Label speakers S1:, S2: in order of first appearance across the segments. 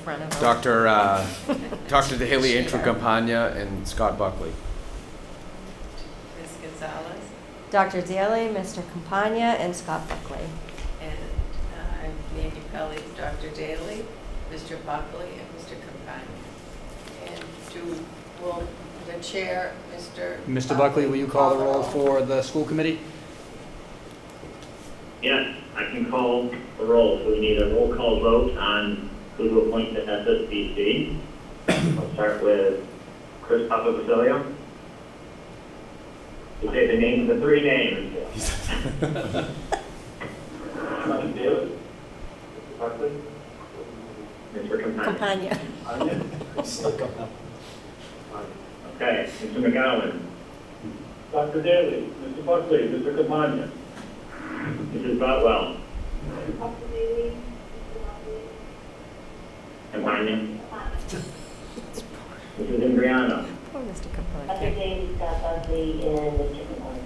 S1: front of us.
S2: Dr. Uh, Dr. DeHaley Intracampagna and Scott Buckley.
S3: Ms. Gonzalez,
S1: Dr. Daley, Mr. Campagna, and Scott Buckley.
S3: and uh, I'm Mandy Pelley, Dr. Daly, Mr. Buckley, and Mr. Campagna. And to, will the chair, Mr.
S4: Mr. Buckley, will you call the roll for the school committee?
S5: Yes, I can call the roll. So we need a roll call vote on who to appoint to SSBC. I'll start with Chris Papavasilio. You say the names, the three names. Dr. Daly, Mr. Buckley, Mr. Campagna.
S1: Campagna.
S5: Okay, Mr. McGowan,
S6: Dr. Daly, Mr. Buckley, Mr. Camagna,
S5: Mrs. Botwell, Campagna, Mrs. Imbriano,
S1: Poor Mr.
S7: Dr.
S1: Campagna.
S7: James, Scott Buckley, and Mr. Capone.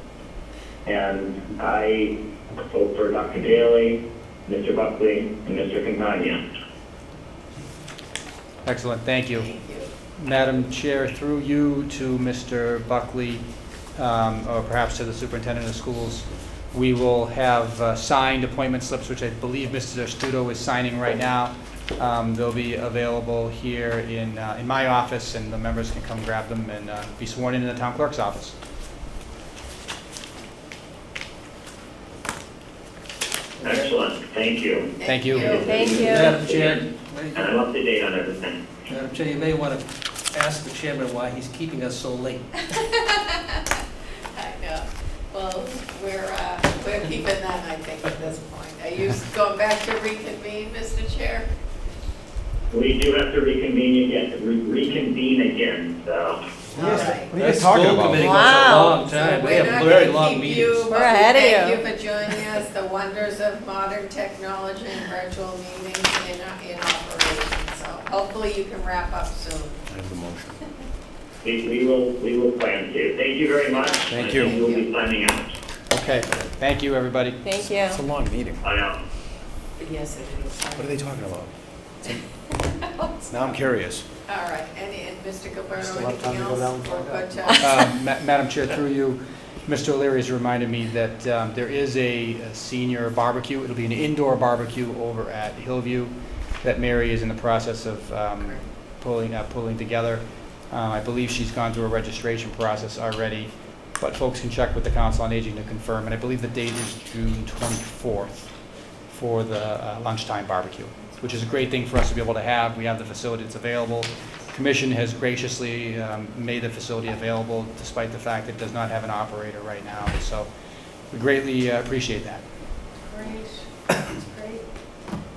S5: And I vote for Dr. Daly, Mr. Buckley, and Mr. Campagna.
S4: Excellent, thank you.
S3: Thank you.
S4: Madam Chair, through you to Mr. Buckley, um, or perhaps to the superintendent of schools, we will have uh, signed appointment slips, which I believe Mr. Studo is signing right now. Um, They'll be available here in, uh, in my office, and the members can come grab them and uh, be sworn in in the town clerk's office.
S5: Excellent, thank you.
S4: Thank you.
S1: Thank you.
S8: Madam Chair,
S5: And I'm up to date on everything.
S8: Madam Chair, you may want to ask the chairman why he's keeping us so late.
S3: I know. Well, we're, uh, we're keeping that, I think, at this point. Are you going back to reconvene, Mr. Chair?
S5: We do have to reconvene again, re- reconvene again, so.
S3: All right.
S2: What are you guys talking
S8: That school
S2: about?
S8: committee goes a
S1: Wow.
S8: long time.
S3: So
S8: We have very long meetings.
S3: We're
S1: We're
S3: not
S1: ahead of
S3: going to keep you, but we
S1: you.
S3: thank you for joining us, the wonders of modern technology and virtual meetings in, in operation. So hopefully you can wrap up soon.
S2: I have the motion.
S5: We, we will, we will plan to. Thank you very much.
S2: Thank
S5: I
S2: you.
S5: think We'll be signing out.
S4: Okay, thank you, everybody.
S1: Thank you.
S2: It's a long meeting.
S5: Bye now.
S3: Yes, it is.
S2: What are they talking about? Now I'm curious.
S3: All right, and, and Mr.
S8: Just a
S3: Gilberto,
S8: lot of time
S3: anything
S8: to go down and
S3: else? We're
S8: find out.
S3: good to-
S4: Uh, Ma- Madam Chair, through you, Mr. O'Leary has reminded me that um, there is a a senior barbecue. It'll be an indoor barbecue over at Hillview that Mary is in the process of um, pulling, uh, pulling together. Uh, I believe she's gone through a registration process already, but folks can check with the Council on Aging to confirm. And I believe the date is June 24th for the uh, lunchtime barbecue, which is a great thing for us to be able to have. We have the facility, it's available. Commission has graciously um, made the facility available despite the fact it does not have an operator right now. So we greatly uh, appreciate that.
S3: Great, that's great.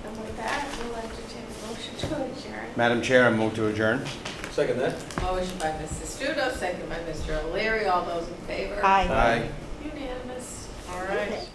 S3: And with that, we'll entertain a motion to adjourn.
S2: Madam Chair, I move to adjourn.
S8: Second that.
S3: Motion by Mrs. Studo, second by Mr. O'Leary, all those in favor?
S1: Aye.
S2: Aye.
S3: Unanimous, all right.